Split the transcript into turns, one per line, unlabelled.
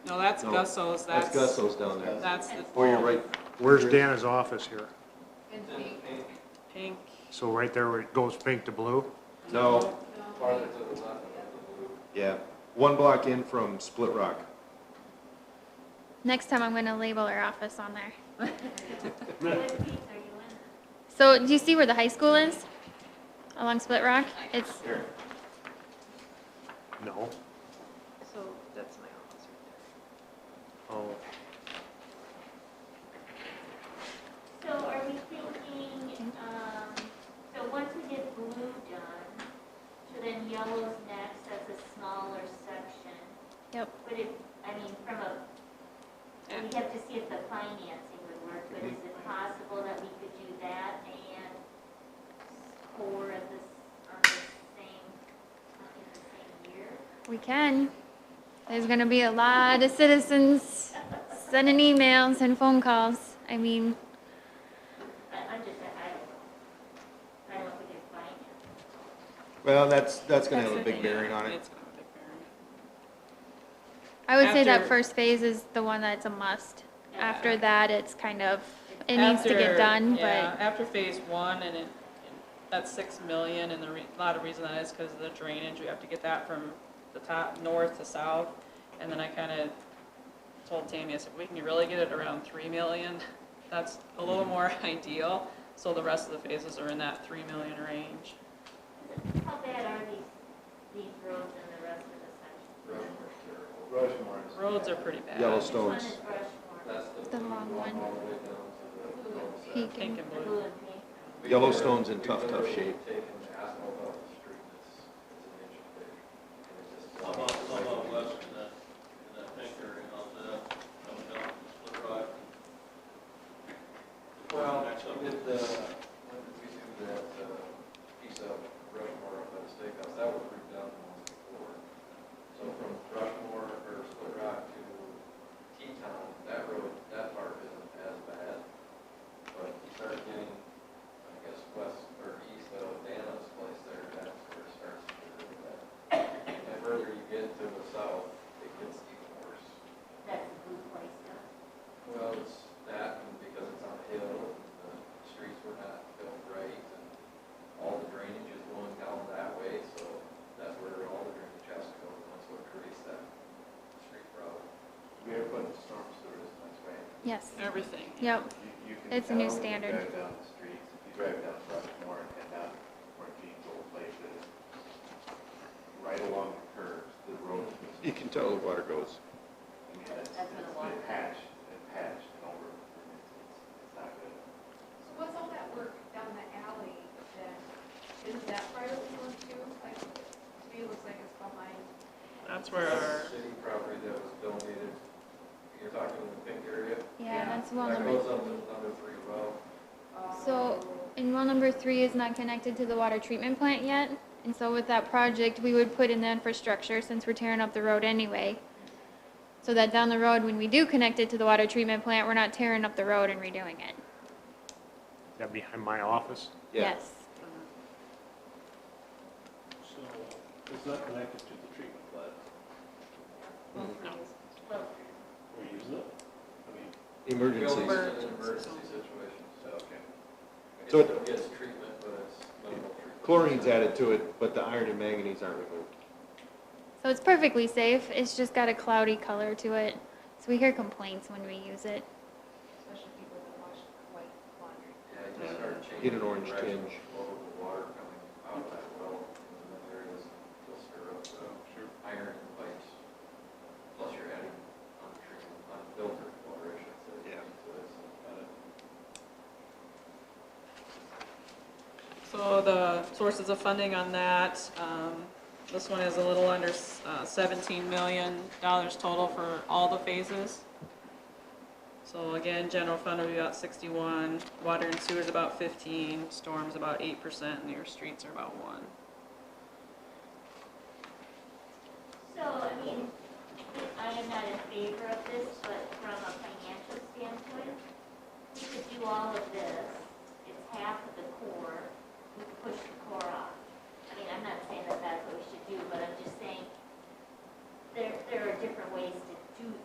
No, that's
No,
Gusso's, that's,
That's Gusso's down there.
that's the
Or you're right,
Where's Dana's office here?
And pink,
pink.
So right there where it goes pink to blue?
no, yeah, one block in from Split Rock.
Next time I'm going to label our office on there.
what pink are you in?
So do you see where the high school is? Along Split Rock? It's,
No.
So that's my office right
Oh,
So are we thinking, um, so once we get blue done, so then yellow's next, that's a smaller section.
Yep.
But if, I mean, from a, we have to see if the financing would work, but is it possible that we could do that and score at this, on the same, in the same year?
we can. There's going to be a lot of citizens sending emails and phone calls. I mean,
I, I'm just, I don't know. I don't know if we can finance.
Well, that's, that's gonna
there.
have a big bearing on it.
It's gonna have a big bearing.
I would say that
After-
first phase is the one that's a must. After that, it's kind of, it needs to
After-
get done,
yeah,
but
After phase one, and it, that's six million, and the re, a lot of reason that is because of the drainage, we have to get that from the top, north to south. And then I kinda told Tammy, I said, we can really get it around three million, that's a
Mm-hmm.
little more ideal. So the rest of the phases are in that three million range.
How bad are these, these roads and the rest of the section?
Roads are pretty bad.
This one
Yellowstone's,
is Rushmore,
the long one. Peak
Pink
and
and
the
blue.
blue and pink.
Yellowstone's in tough, tough shape.
I'm on, I'm on west in that, in that pink area, out there, coming down from Split Rock.
Well,
Next up.
we did the, when did we do that, uh, piece of Rushmore up at the steakhouse, that was ripped down once before. So from Rushmore or Split Rock to Teton, that road, that part isn't as bad. But you start getting, I guess, west or east of Dana's place there, that's where it starts to get really bad. And the further you get to the south, it gets even worse.
That's the blue place down.
Well, it's that, and because it's on a hill, and the streets were not built right, and all the drainage is going down that way, so that's where all the drainage has to go, and that's what creates that street problem. We are putting storm sewers in this way.
yes,
Everything.
yep.
You can
It's a new standard.
drive down the streets, if you drive down Rushmore and down where people places, right along the curves, the road is
You can tell the water goes.
I mean, it's, it's
That's what I want.
been patched, and patched and over, and it's, it's- it's not good.
So what's all that work down the alley then? Isn't that privately owned too? Like, to me, it looks like it's behind.
That's where our,
City property that was donated, you're talking in the pink area,
Yeah, that's well
that
number
goes up to number three well.
So, and well number three is not connected to the water treatment plant yet. And so with that project, we would put in the infrastructure since we're tearing up the road anyway. So that down the road, when we do connect it to the water treatment plant, we're not tearing up the road and redoing it.
that behind my office?
Yeah,
Yes.
So, it's not connected to the treatment plant,
Well,
we're using it, I mean.
emergencies.
Built in an emergency situation, so. Okay.
So
It
it-
still gets treatment, but it's minimal treatment.
Chlorine's added to it, but the iron and manganese aren't removed.
So it's perfectly safe. It's just got a cloudy color to it. So we hear complaints when we use it.
Especially people that wash white laundry.
Yeah, you just start changing.
Get an orange
direction
tinge.
of the water coming out of that well, and then there is, you'll stir up the iron in pipes. Plus you're adding untreated, unfiltered water, I should say.
Yeah.
So it's uh,
so
kind of
the sources of funding on that, um, this one is a little under uh, seventeen million dollars total for all the phases. So again, general fund will be about sixty-one, water and sewer's about fifteen, storm's about eight percent, and your streets are about one.
So, I mean, I am not in favor of this, but from a financial standpoint, we could do all of this, it's half of the core, we could push the core off. I mean, I'm not saying that that's what we should do, but I'm just saying, there, there are different ways to do